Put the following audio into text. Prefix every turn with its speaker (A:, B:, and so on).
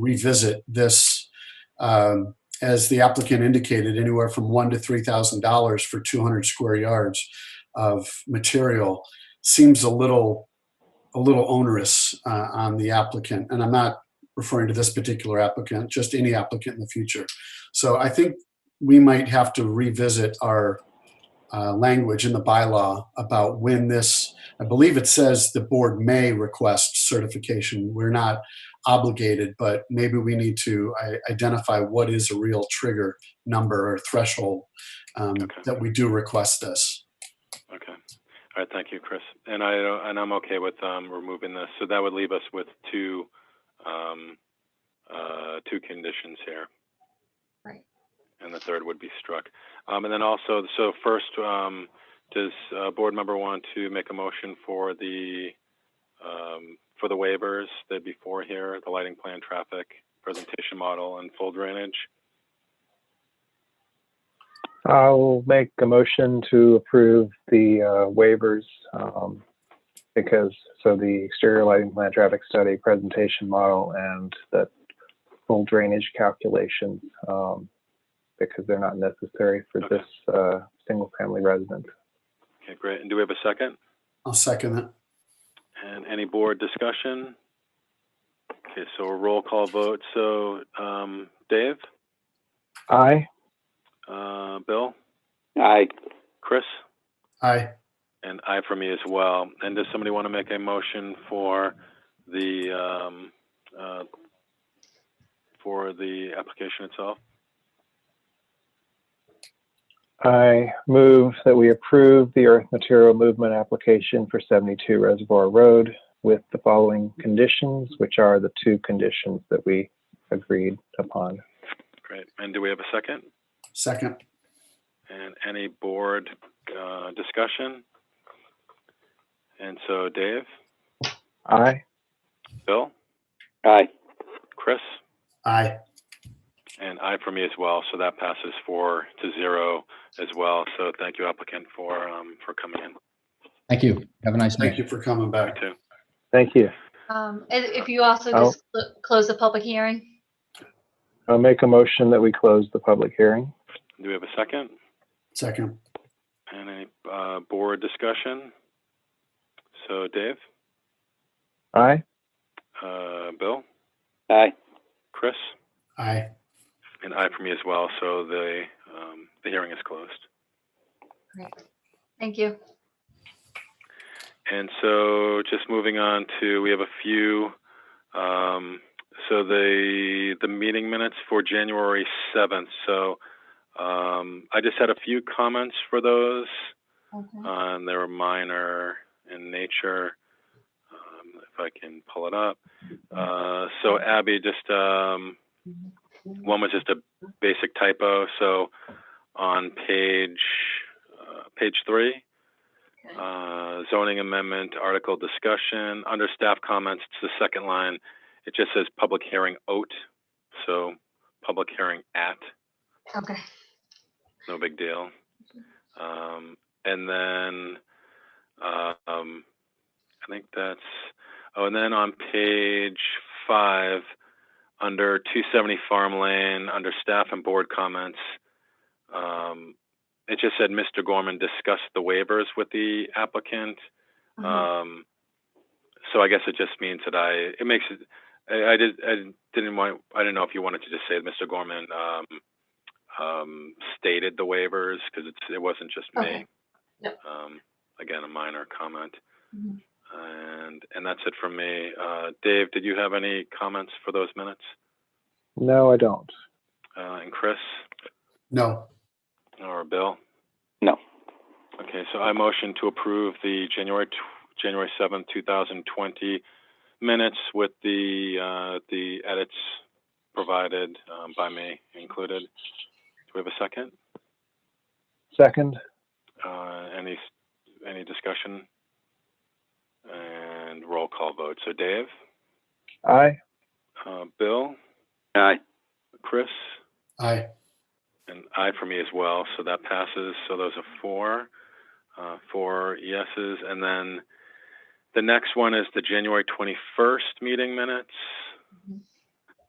A: revisit this, um, as the applicant indicated, anywhere from one to three thousand dollars for two hundred square yards of material seems a little, a little onerous uh, on the applicant. And I'm not referring to this particular applicant, just any applicant in the future. So I think we might have to revisit our uh, language in the bylaw about when this, I believe it says the board may request certification. We're not obligated, but maybe we need to i- identify what is a real trigger number or threshold um,
B: Okay.
A: that we do request this.
B: Okay. All right, thank you, Chris. And I, and I'm okay with, um, removing this. So that would leave us with two, um, uh, two conditions here.
C: Right.
B: And the third would be struck. Um, and then also, so first, um, does, uh, board member want to make a motion for the, um, for the waivers that before here, the lighting plan, traffic, presentation model, and full drainage?
D: I'll make a motion to approve the uh, waivers um, because, so the exterior lighting plan, traffic study, presentation model, and the full drainage calculations um, because they're not necessary for
B: Okay.
D: this uh, single-family residence.
B: Okay, great. And do we have a second?
A: I'll second it.
B: And any board discussion? Okay, so a roll call vote. So, um, Dave,
D: Aye.
B: uh, Bill,
E: Aye.
B: Chris,
A: Aye.
B: and I for me as well. And does somebody want to make a motion for the, um, uh, for the application itself?
D: I move that we approve the earth material movement application for 72 Reservoir Road with the following conditions, which are the two conditions that we agreed upon.
B: Great. And do we have a second?
A: Second.
B: And any board, uh, discussion? And so Dave,
D: Aye.
B: Bill,
E: Aye.
B: Chris?
A: Aye.
B: And I for me as well, so that passes four to zero as well. So thank you applicant for, um, for coming in.
F: Thank you. Have a nice night.
A: Thank you for coming
B: You
A: back.
B: too.
D: Thank you.
C: Um, and if you also
D: Oh.
C: just cl- close the public hearing,
D: I'll make a motion that we close the public hearing.
B: Do we have a second?
A: Second.
B: And any, uh, board discussion? So Dave,
D: Aye.
B: uh, Bill,
E: Aye.
B: Chris,
A: Aye.
B: and I for me as well, so the, um, the hearing is closed.
C: great. Thank you.
B: And so just moving on to, we have a few, um, so the, the meeting minutes for January 7th. So, um, I just had a few comments for those.
C: Okay.
B: Um, they were minor in nature. Um, if I can pull it up. Uh, so Abby, just um, one was just a basic typo. So on page uh, page three, uh, zoning amendment article discussion under staff comments. It's the second line. It just says public hearing oat. So public hearing at
C: Okay.
B: no big deal. Um, and then, uh, um, I think that's, oh, and then on page five, under 270 Farm Lane, under staff and board comments, um, it just said Mr. Gorman discussed the waivers with the applicant.
C: Mhm.
B: Um, so I guess it just means that I, it makes it, I, I did, I didn't want, I didn't know if you wanted to just say that Mr. Gorman, um, um, stated the waivers, because it's, it wasn't just me.
C: Okay. Yep.
B: Um, again, a minor comment.
C: Mhm.
B: And, and that's it from me. Uh, Dave, did you have any comments for those minutes?
D: No, I don't.
B: Uh, and Chris
A: No.
B: or Bill?
E: No.
B: Okay, so I motion to approve the January, tw- January seventh, two thousand twenty minutes with the, uh, the edits provided, um, by me included. Do we have a second?
D: Second.
B: Uh, any, s- any discussion? And roll call vote. So Dave,
D: Aye.
B: uh, Bill,
E: Aye.
B: Chris,
A: Aye.
B: and I for me as well. So that passes. So those are four, uh, four yeses. And then the next one is the January 21st meeting minutes.